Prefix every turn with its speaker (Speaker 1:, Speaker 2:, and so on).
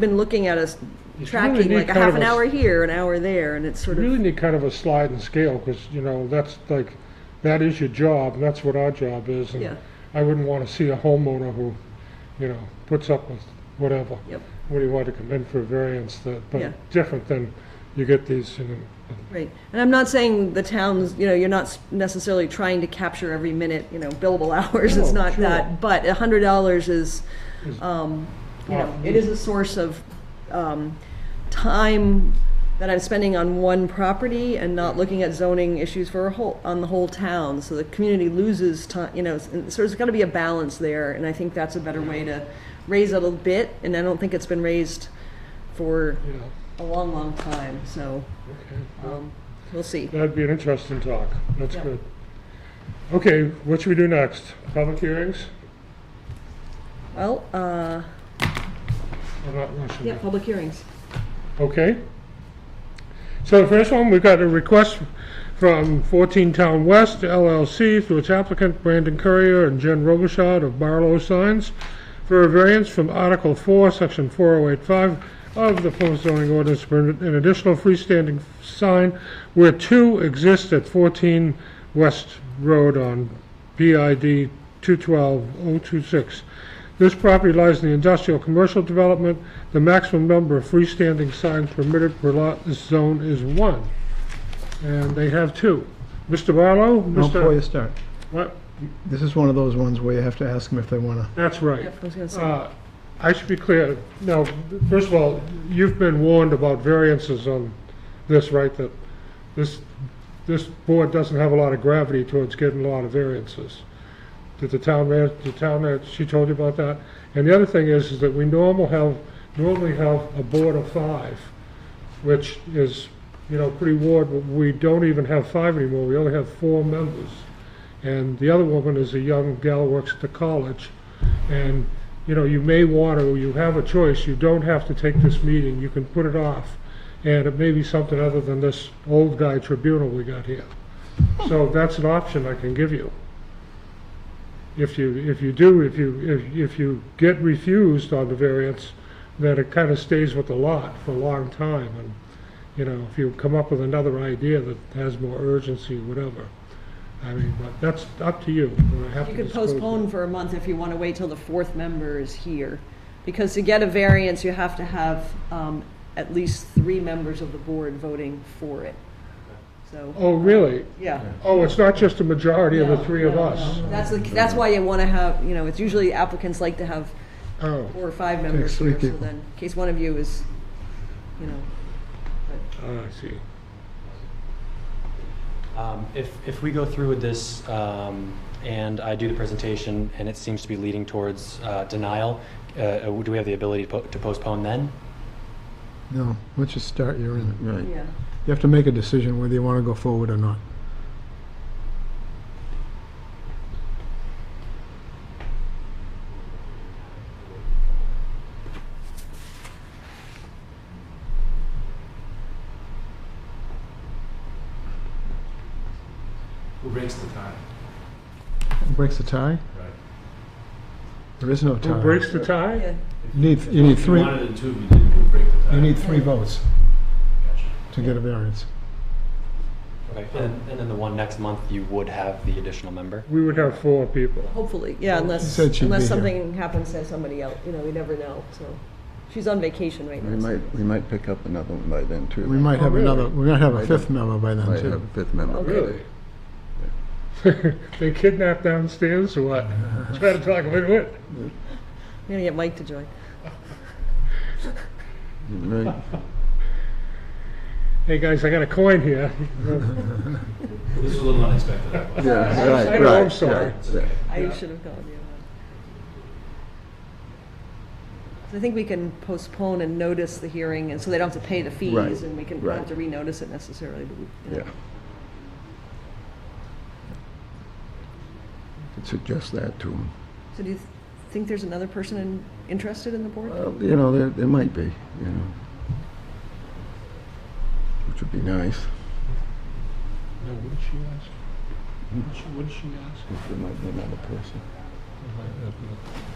Speaker 1: been looking at us
Speaker 2: It's really
Speaker 1: tracking
Speaker 2: neat
Speaker 1: like a
Speaker 2: kind
Speaker 1: half
Speaker 2: of
Speaker 1: an
Speaker 2: a s-
Speaker 1: hour here, an hour there, and it's sort
Speaker 2: You really
Speaker 1: of,
Speaker 2: need kind of a slide and scale, because, you know, that's like, that is your job, and that's what our job is.
Speaker 1: Yeah.
Speaker 2: And I wouldn't want to see a homeowner who, you know, puts up with whatever.
Speaker 1: Yep.
Speaker 2: What do you want to come in for a variance that,
Speaker 1: Yeah.
Speaker 2: but different than you get these, you know,
Speaker 1: right. And I'm not saying the towns, you know, you're not s- necessarily trying to capture every minute, you know, billable hours, it's
Speaker 2: No,
Speaker 1: not
Speaker 2: sure.
Speaker 1: that. But a hundred dollars is,
Speaker 2: Is-
Speaker 1: um, you know,
Speaker 2: Often.
Speaker 1: it is a source of, um, time that I'm spending on one property and not looking at zoning issues for a whole, on the whole town. So the community loses time, you know, s- and so there's gotta be a balance there, and I think that's a better way to raise it a little bit, and I don't think it's been raised for
Speaker 2: you know,
Speaker 1: a long, long time, so,
Speaker 2: okay.
Speaker 1: um, we'll see.
Speaker 2: That'd be an interesting talk. That's
Speaker 1: Yeah.
Speaker 2: good. Okay, what should we do next? Public hearings?
Speaker 1: Well, uh,
Speaker 2: Or not rushing
Speaker 1: yeah,
Speaker 2: it?
Speaker 1: public hearings.
Speaker 2: Okay. So the first one, we've got a request from 14 Town West LLC through its applicant Brandon Courier and Jen Robichaud of Barlow Signs for a variance from Article 4, Section 4085 of the Plymouth zoning ordinance to permit an additional freestanding sign where two exist at 14 West Road on BID 212026. This property lies in the industrial commercial development. The maximum number of freestanding signs permitted per lot in this zone is one, and they have two. Mr. Barlow?
Speaker 3: Well, Before you
Speaker 2: Mr.
Speaker 3: start,
Speaker 2: What?
Speaker 3: this is one of those ones where you have to ask them if they want to.
Speaker 2: That's right.
Speaker 1: Yep, I was gonna say,
Speaker 2: Uh, I should be clear. Now, first of all, you've been warned about variances on this, right? That this, this board doesn't have a lot of gravity towards getting a lot of variances. Did the town man, the town man, she told you about that? And the other thing is, is that we normal have, normally have a board of five, which is, you know, pretty ward, but we don't even have five anymore. We only have four members. And the other woman is a young gal who works at the college. And, you know, you may want to, you have a choice, you don't have to take this meeting, you can put it off. And it may be something other than this old guy tribunal we got here. So that's an option I can give you. If you, if you do, if you, if- if you get refused on the variance, then it kind of stays with the lot for a long time. And, you know, if you come up with another idea that has more urgency, whatever. I mean, but that's up to you. We're happy
Speaker 1: You
Speaker 2: to
Speaker 1: could
Speaker 2: disclose that.
Speaker 1: postpone for a month if you wanna wait till the fourth member is here. Because to get a variance, you have to have, um, at least three members of the board voting for it. So,
Speaker 2: Oh, really?
Speaker 1: yeah.
Speaker 2: Oh, it's not just a majority of the
Speaker 1: No,
Speaker 2: three of
Speaker 1: no,
Speaker 2: us?
Speaker 1: no. That's, the- that's why you wanna have, you know, it's usually applicants like to have
Speaker 2: Oh,
Speaker 1: four or five members
Speaker 3: three
Speaker 1: here, so
Speaker 3: people.
Speaker 1: then, in case one of you is, you know,
Speaker 2: Ah, I see.
Speaker 4: Um, If, if we go through with this um, and I do the presentation and it seems to be leading towards uh, denial, uh, do we have the ability to po- to postpone then?
Speaker 3: No, once you start, you're in. it.
Speaker 5: Right.
Speaker 1: yeah.
Speaker 3: You have to make a decision whether you want to go forward or not.
Speaker 6: Who breaks the tie?
Speaker 3: Who Breaks the tie?
Speaker 6: Right.
Speaker 3: There is no
Speaker 2: Who
Speaker 3: tie.
Speaker 2: breaks the tie?
Speaker 1: Yeah.
Speaker 3: You need, you need
Speaker 6: If
Speaker 3: three,
Speaker 6: You wanted it to, you didn't, who'd break the tie?
Speaker 3: you need three votes
Speaker 6: Gotcha.
Speaker 3: to get a variance.
Speaker 4: Okay, And and then the one next month, you would have the additional member?
Speaker 2: We would have four people.
Speaker 1: Hopefully, yeah, unless,
Speaker 3: said she'd be
Speaker 1: unless
Speaker 3: here.
Speaker 1: something happens to somebody else, you know, we never know, so. She's on vacation right
Speaker 5: We
Speaker 1: now. so-
Speaker 5: might, we might pick up another one by then, too.
Speaker 3: We might
Speaker 2: Oh,
Speaker 3: have
Speaker 2: really?
Speaker 3: another, we might have
Speaker 5: Right.
Speaker 3: a fifth member by then,
Speaker 5: Might have
Speaker 3: too.
Speaker 5: a fifth member. by
Speaker 2: Really?
Speaker 5: then.
Speaker 2: They kidnapped downstairs or what? Try to talk about it.
Speaker 1: I'm gonna get Mike to join.
Speaker 5: Right.
Speaker 2: Hey, guys, I got a coin here.
Speaker 6: This is a little unexpected. that was.
Speaker 5: Yeah,
Speaker 2: I
Speaker 5: right,
Speaker 2: know, I'm
Speaker 5: right,
Speaker 2: sorry.
Speaker 5: right, right.
Speaker 1: I
Speaker 6: Yeah.
Speaker 1: should have called you. So I think we can postpone and notice the hearing, and so they don't have to pay the fees,
Speaker 5: Right,
Speaker 1: and we can, we don't have to renotice it necessarily, but we, you know.
Speaker 5: Yeah. Could Suggest that to them.
Speaker 1: So do you th- think there's another person in- interested in the board?
Speaker 5: Well, you know, there, there might be, you know. Which would be nice.
Speaker 2: No, what did she ask? What did she- What did she ask?
Speaker 5: There might be another person.
Speaker 2: It might not be.